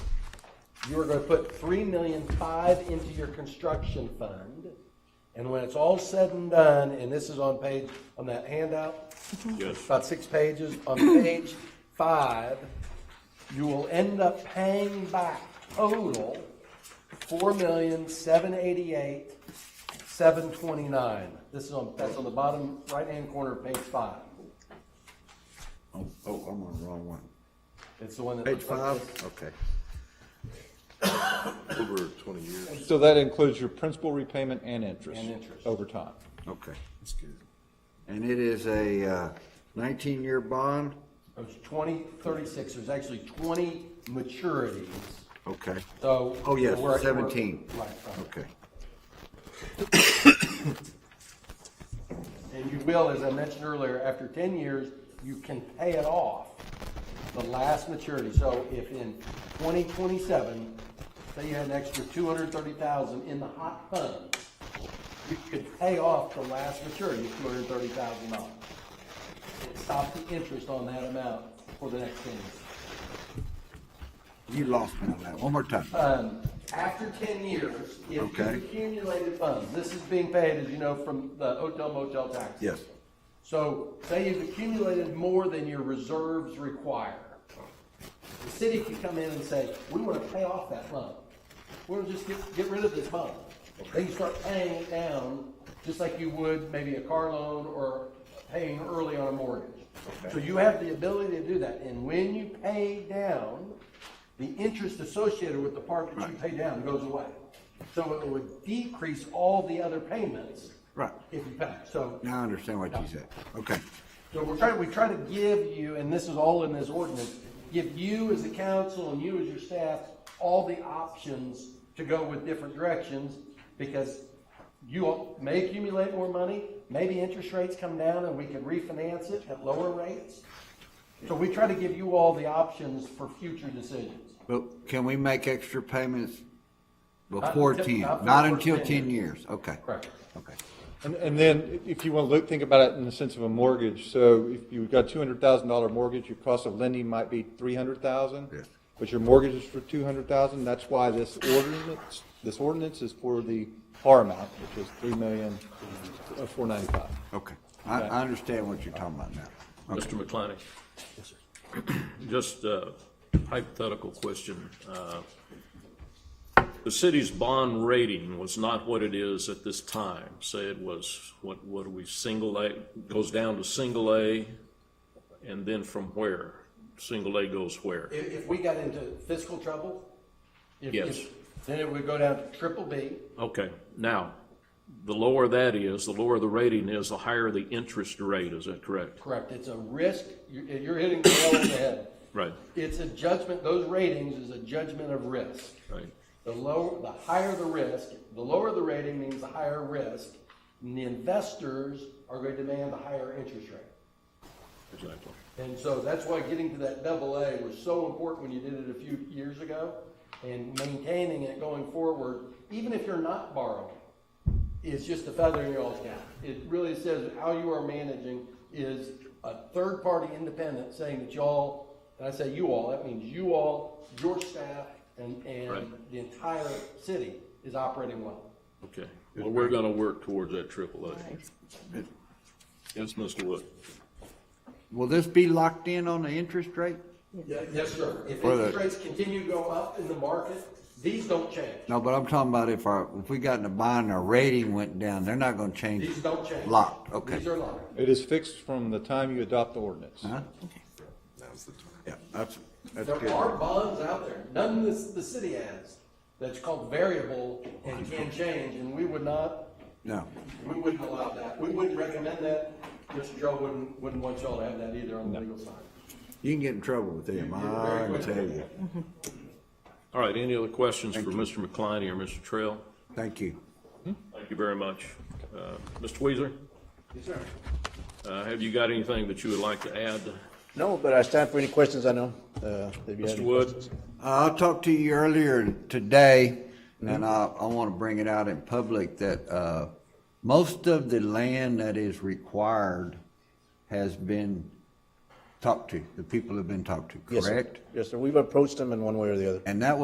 you are gonna put three million five into your construction fund. And when it's all said and done, and this is on page, on that handout, Yes. about six pages, on page five, you will end up paying back total four million, seven eighty-eight, seven twenty-nine. This is on, that's on the bottom right-hand corner of page five. Oh, oh, I'm on the wrong one. It's the one that. Page looks like five, this. okay. Over twenty years. So that includes your principal repayment and interest? And interest. Over time. Okay, that's good. And it is a uh, 19-year bond? It's twenty thirty-six, there's actually twenty maturities, Okay, so. Oh, yes, we're- we're- 17. Right, right. okay. And you will, as I mentioned earlier, after ten years, you can pay it off, the last maturity. So if in twenty twenty-seven, say you had an extra two hundred thirty thousand in the hot fund, you could pay off the last maturity of two hundred thirty thousand dollars. And stop the interest on that amount for the next ten years. You lost me on that. One more time. Um, after ten years, if you Okay. accumulated funds, this is being paid, as you know, from the hotel motel tax. Yes. So say you've accumulated more than your reserves require. The city can come in and say, we want to pay off that loan. We're gonna just get, get rid of this bond. Then you start paying it down, just like you would maybe a car loan or paying early on a mortgage. So you have the ability to do that, and when you pay down, the interest associated with the part that you pay down goes away. So it would decrease all the other payments. Right. If you pay, so. Now I understand what you said. Okay, So we're trying, we try to give you, and this is all in this ordinance, give you as the council and you as your staff all the options to go with different directions, because you all may accumulate more money, maybe interest rates come down and we can refinance it at lower rates. So we try to give you all the options for future decisions. but can we make extra payments before until- 10? not for Not the first until 10 10 years? Okay. Correct. Okay. And, and then if you want to look, think about it in the sense of a mortgage. So if you've got two hundred thousand dollar mortgage, your cost of lending might be three hundred thousand. Yes. But your mortgage is for two hundred thousand. That's why this ordinance, this ordinance is for the par amount, which is three million, uh, four ninety-five. Okay. I, I understand what you're talking about now. Mr. McClanahan? Just a hypothetical question. Uh, The city's bond rating was not what it is at this time. Say it was, what, what are we, single A, goes down to single A, and then from where? Single A goes where? If, if we got into fiscal trouble, if, Yes. if, then it would go down to triple B. Okay, now, the lower that is, the lower the rating is, the higher the interest rate, is that correct? Correct, it's a risk, you're, you're hitting the nail on the head. Right. It's a judgment, those ratings is a judgment of risk. Right. The lower, the higher the risk, the lower the rating means the higher risk, and the investors are going to demand the higher interest rate. Exactly. And so that's why getting to that double A was so important when you did it a few years ago, and maintaining it going forward, even if you're not borrowing, is just a feather in your all's cap. It really says how you are managing is a third-party independent saying that y'all, and I say you all, that means you all, your staff, and, Right. and the entire city is operating well. Okay, well, we're gonna work towards that triple A. Yes, Mr. Wood? Will this be locked in on the interest rate? Yes, sir. If Or the- interest rates continue to go up in the market, these don't change. No, but I'm talking about if our, if we got in a bond, and our rating went down, they're not gonna change. These don't change. Locked, okay. These are locked. It is fixed from the time you adopt the ordinance. Huh? Yeah, that's, that's good. There are bonds out there, none this, the city has, that's called variable and can change, and we would not, No, we wouldn't allow that. We wouldn't recommend that. Mr. Joe wouldn't, wouldn't want y'all to have that either on the legal side. you can get in trouble with them, I can tell you. All right, any other questions for Mr. McCliney or Mr. Trail? Thank you. Thank you very much. Uh, Mr. Weezer? Yes, sir. Have you got anything that you would like to add, No, but I stand for any questions I know. uh, if you have Mr. any Wood? Uh, I talked to you earlier today, and I, I want to bring it out in public that uh, most of the land that is required has been talked to. The people have been talked to, Yes, sir. correct? Yes, sir. We've approached them in one way or the other. And that